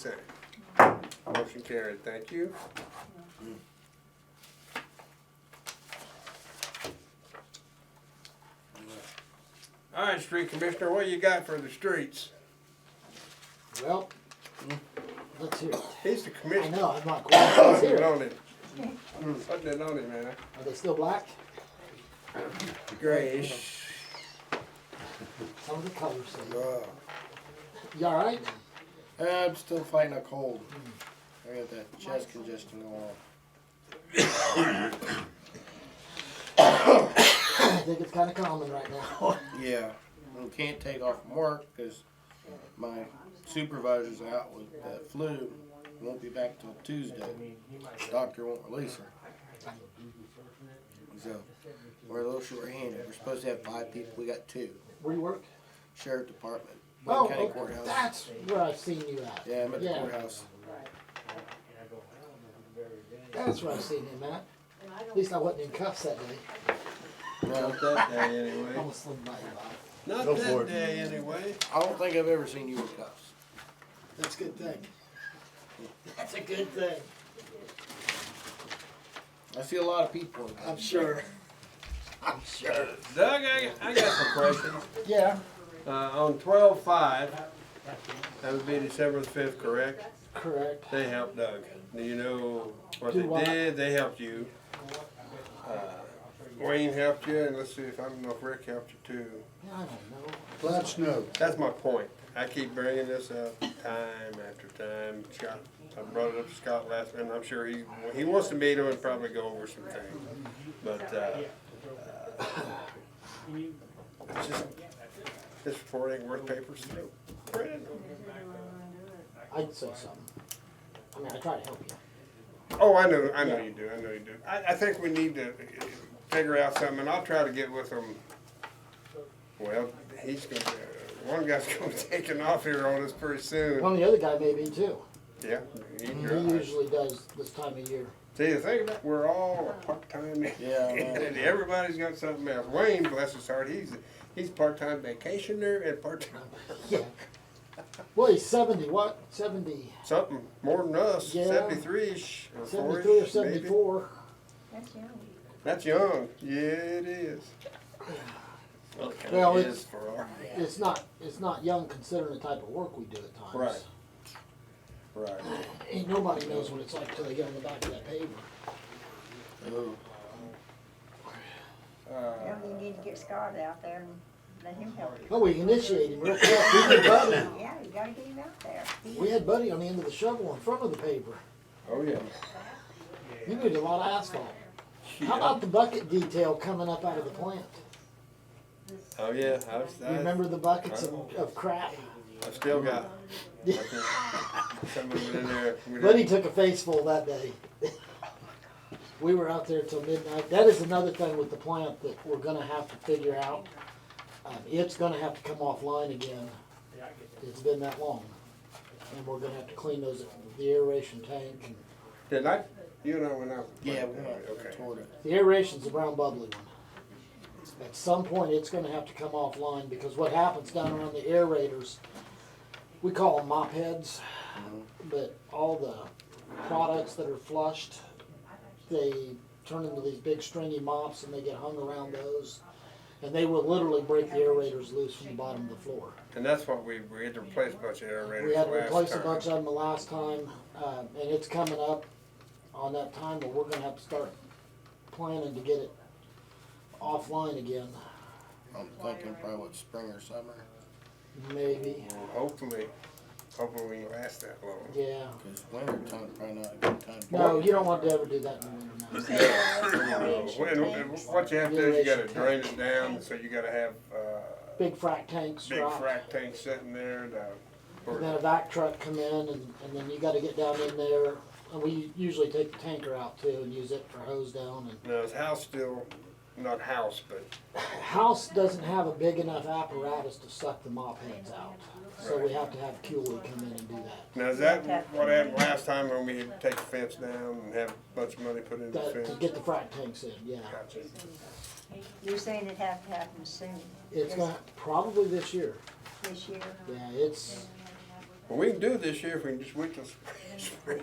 Second. Motion carried, thank you. All right, street commissioner, what you got for the streets? Well, Mm. let's hear it. He's the I commissioner. know, I'm not quite let's Putting hear it it. on him. Mm, Putting it on him, man. Are they still black? Grayish. Some of the colors. say- Uh, You all right? I'm still fighting a cold. Hmm. I got that chest congestion going on. I think it's kind of common right now. Yeah, and can't take off from work because my supervisor's out with the flu. Won't be back till Tuesday. Doctor won't release her. So we're a little short-handed. We're supposed to have five people. We got two. Where you work? Sheriff Department, Wayne Oh, County okay, Courthouse. that's where I've seen you at. yeah, I'm at the courthouse. That's where I've seen him at. At least I wasn't in cuffs that day. No, Not that day, anyway. Almost slid by you. Not that day, anyway. I don't think I've ever seen you with cuffs. That's a good thing. That's a good thing. I see a lot of people. in cuffs. sure. I'm sure. Doug, I, I got some questions. Yeah. Uh, on twelve five, that would be December the fifth, correct? Correct. They helped Doug. Do you know what Do they what? did? They helped you. Uh, Wayne helped you, and let's see if I don't know if Rick helped you too. Yeah, I don't know. Let snow. That's my point. I keep bringing this up time after time. Scott, I brought it up to Scott last, and I'm sure he he wants to meet him and probably go over some things. But uh, uh, it's just this report ain't worth paper's throat. Print it. I'd say something. I mean, I try to help you. Oh, I know, I know you do, I know you do. I, I think we need to figure out something, and I'll try to get with them. Well, he's gonna, one guy's gonna be taking off here on us pretty soon. Well, the other guy may be too. Yeah. you- He you're right. usually does this time of year. See, the thing about, we're all a part-time, Yeah, I know. and everybody's got something else. Wayne, bless his heart, he's, he's part-time vacationer and part-time, Yeah. Well, he's seventy, what, seventy, something more than us, Yeah. seventy-three-ish or four-ish, seventy-three or maybe. seventy-four? That's young. That's young. Yeah, it is. Well, it Well, kinda it's- is for our, It's not, it's not young considering the type of work we do at times. Right. right. Ain't nobody knows what it's like till they get on the back of that paper. Ooh. Uh, Now you need to get Scott out there and let him help you. Oh, we initiated him real quick. We had Buddy, Yeah, you gotta get him out there. we had Buddy on the end of the shovel in front of the paper. oh, yeah. You need a lot of asphalt. How about the bucket detail coming up out of the plant? Oh, yeah. I was, You I, remember the buckets of, of crap? I still got Yeah. some of it in there. We didn't- Buddy took a face full that day. We were out there till midnight. That is another thing with the plant that we're gonna have to figure out. Um, it's gonna have to come offline again. It's been that long. And we're gonna have to clean those, the aeration tank and, Did I? You and I went out. Yeah, we went Okay. toward it. the aeration's the brown bubbly one. At some point, it's gonna have to come offline because what happens down around the aerators, we call them mop heads, but all the products that are flushed, they turn into these big stringy mops and they get hung around those. And they will literally break the aerators loose from the bottom of the floor. And that's what we, we had to replace a bunch of aerators We had to last replace a time. bunch of them the last time, um, and it's coming up on that time, but we're gonna have to start planning to get it offline again, I'm thinking probably what, spring or summer. maybe, Well, Hopefully, hopefully we can last that long. yeah. Because winter time probably not a good time. to- No, you don't want to ever do that in the You winter, said there was Uh, aeration when- tanks. what you have to do is you gotta Aeration drain it down, so you gotta have, no. uh, Big frac tanks big drop, frac tank sitting there, the, and then a vac truck come in, and, and then you gotta get down in there. And we usually take the tanker out too and use it for hose down and now his house still, not house, but House doesn't have a big enough apparatus to suck the mop heads out, so we have to have Cooley come in and do that. Now, is that what happened last time when we had to take the fence down and have a bunch of money put into the That, to fence? get the frac tanks in, yeah. Gotcha. You're saying it had to happen soon It's gonna, probably this year, this year? yeah, it's, Well, we can do it this year if we can just wait till spring.